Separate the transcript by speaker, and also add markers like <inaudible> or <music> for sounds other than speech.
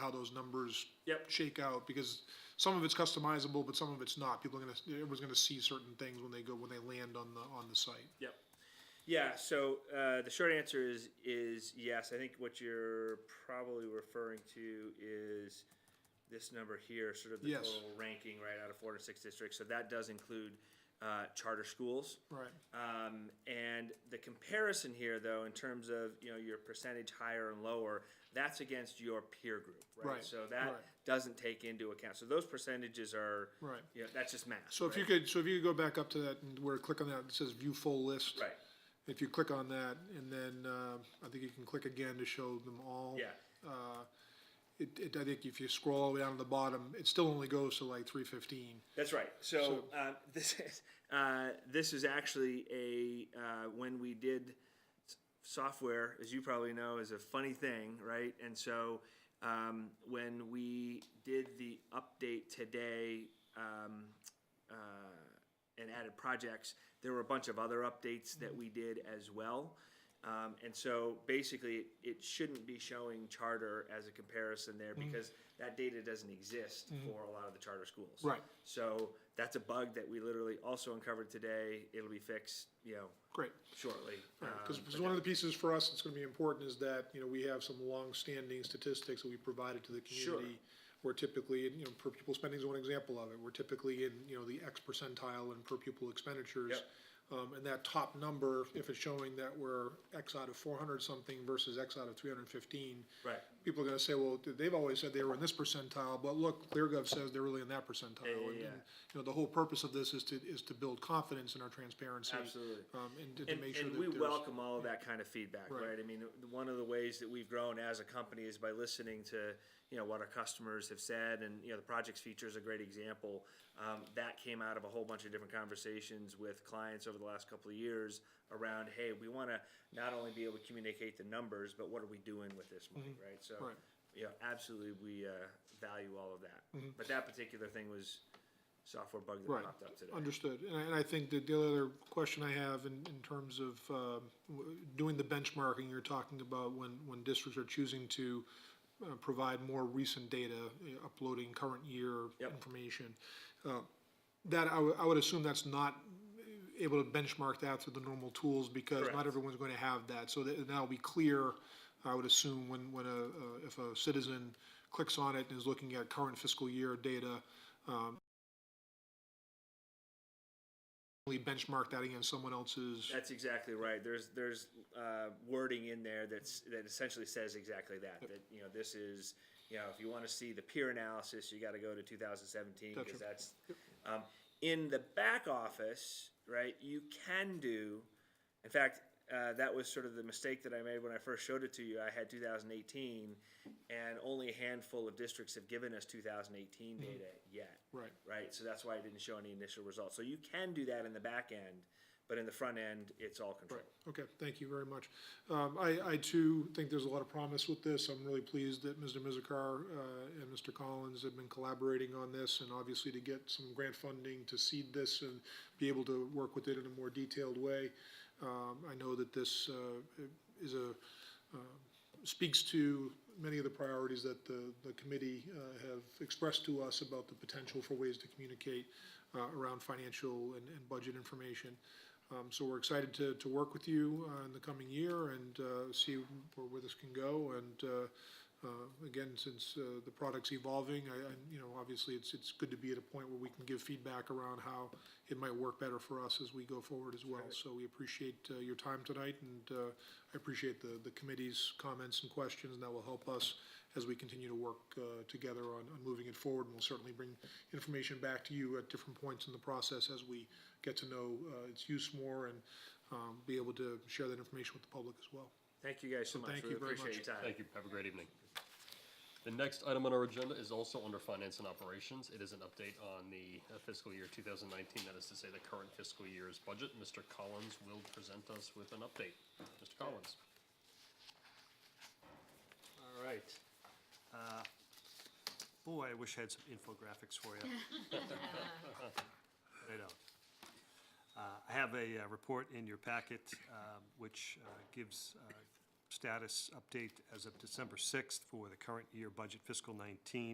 Speaker 1: how those numbers
Speaker 2: Yep.
Speaker 1: shake out, because some of it's customizable, but some of it's not. People are gonna, everyone's gonna see certain things when they go, when they land on the, on the site.
Speaker 2: Yep. Yeah. So uh, the short answer is is yes. I think what you're probably referring to is this number here, sort of the
Speaker 1: Yes.
Speaker 2: total ranking right out of four to six districts. So that does include uh, charter schools.
Speaker 1: Right.
Speaker 2: Um, and the comparison here, though, in terms of you know your percentage higher and lower, that's against your peer group, right?
Speaker 1: Right,
Speaker 2: So that
Speaker 1: right.
Speaker 2: doesn't take into account. So those percentages are
Speaker 1: Right.
Speaker 2: You know, that's just math.
Speaker 1: So if you
Speaker 2: right?
Speaker 1: could, so if you could go back up to that, and where, click on that, it says view full list.
Speaker 2: right,
Speaker 1: If you click on that, and then, uh, I think you can click again to show them all.
Speaker 2: yeah.
Speaker 1: Uh, It, it, I think if you scroll all the way down to the bottom, it still only goes to like three fifteen.
Speaker 2: That's right. So, uh, <laughs> this is uh, this is actually a uh, when we did s- software, as you probably know, is a funny thing, right? And so um, when we did the update today um, uh, and added projects, there were a bunch of other updates that we did as well. Um, and so basically, it shouldn't be showing charter as a comparison there
Speaker 1: Mm.
Speaker 2: because that data doesn't exist for a lot of the charter schools.
Speaker 1: Mm-hmm. Right.
Speaker 2: So that's a bug that we literally also uncovered today. It'll be fixed, you know,
Speaker 1: Great.
Speaker 2: shortly.
Speaker 1: Because,
Speaker 2: Um,
Speaker 1: one of the pieces for us that's gonna be important is that, you know, we have some long-standing statistics that we provided to the
Speaker 2: Sure.
Speaker 1: community. Where typically, and, you know, per pupil spending is one example of it, we're typically in, you know, the X percentile in per pupil expenditures.
Speaker 2: Yep.
Speaker 1: Um, and that top number, if it's showing that we're X out of four hundred something versus X out of three hundred and fifteen.
Speaker 2: Right.
Speaker 1: People are gonna say, well, they've always said they were in this percentile, but look, ClearGov says they're really in that percentile.
Speaker 2: yeah,
Speaker 1: And-
Speaker 2: yeah.
Speaker 1: and, You know, the whole purpose of this is to, is to build confidence in our transparency.
Speaker 2: Absolutely.
Speaker 1: Um, and to- to
Speaker 2: And,
Speaker 1: make sure
Speaker 2: and
Speaker 1: that
Speaker 2: we
Speaker 1: there's-
Speaker 2: welcome all of that kind of feedback,
Speaker 1: Right.
Speaker 2: right? I mean, th- one of the ways that we've grown as a company is by listening to, you know, what our customers have said, and, you know, the projects feature is a great example. Um, that came out of a whole bunch of different conversations with clients over the last couple of years around, hey, we want to not only be able to communicate the numbers, but what are we doing with this money, right? So,
Speaker 1: Mm-hmm. Right.
Speaker 2: you know, absolutely, we uh, value all of that. But that particular thing was software bug that
Speaker 1: Mm-hmm. Right.
Speaker 2: popped up today.
Speaker 1: Understood. And I, and I think that the other question I have in, in terms of, um, w- doing the benchmarking you're talking about when, when districts are choosing to, uh, provide more recent data, you know, uploading current year
Speaker 2: Yep.
Speaker 1: information. Uh, That, I would, I would assume that's not able to benchmark that through the normal tools because not
Speaker 2: Correct.
Speaker 1: everyone's going to have that. So that, that'll be clear, I would assume, when, when a, uh, if a citizen clicks on it and is looking at current fiscal year data, um, we benchmark that against someone else's,
Speaker 2: That's exactly right. There's, there's, uh, wording in there that's, that essentially says exactly that, that, you know, this is, you know, if you wanna see the peer analysis, you gotta go to two thousand seventeen,
Speaker 1: Gotcha.
Speaker 2: because that's, um, in the back office, right, you can do, in fact, uh, that was sort of the mistake that I made when I first showed it to you. I had 2018, and only a handful of districts have given us 2018 data yet
Speaker 1: right,
Speaker 2: Mm-hmm. right? So that's why it didn't show any initial results. So you can do that in the back end, but in the front end, it's all controlled.
Speaker 1: Okay, thank you very much. Um, I, I too think there's a lot of promise with this. I'm really pleased that Mr. Mizikar, uh, and Mr. Collins have been collaborating on this and obviously to get some grant funding to seed this and be able to work with it in a more detailed way. Um, I know that this, uh, is a, speaks to many of the priorities that the, the committee uh, have expressed to us about the potential for ways to communicate uh, around financial and, and budget information. Um, So we're excited to, to work with you uh, in the coming year and uh, see where, where this can go. And uh, uh, again, since uh, the product's evolving, I, I, you know, obviously, it's, it's good to be at a point where we can give feedback around how it might work better for us as we go forward as well. So we appreciate uh, your time tonight, and uh, I appreciate the, the committee's comments and questions, and that will help us as we continue to work uh, together on, on moving it forward. And we'll certainly bring information back to you at different points in the process as we get to know uh, its use more and um, be able to share that information with the public as well.
Speaker 2: Thank you guys so much.
Speaker 1: thank you
Speaker 2: Really
Speaker 1: very much.
Speaker 2: appreciate your time.
Speaker 3: Thank you. Have a great evening. The next item on our agenda is also under finance and operations. It is an update on the uh, fiscal year 2019, that is to say, the current fiscal year's budget. Mr. Collins will present us with an update. Mr. Collins.
Speaker 4: All right. Uh, Boy, I wish I had some infographics for you. I don't. Uh, I have a uh, report in your packet, um, which uh, gives uh, status update as of December 6th for the current year budget fiscal 19.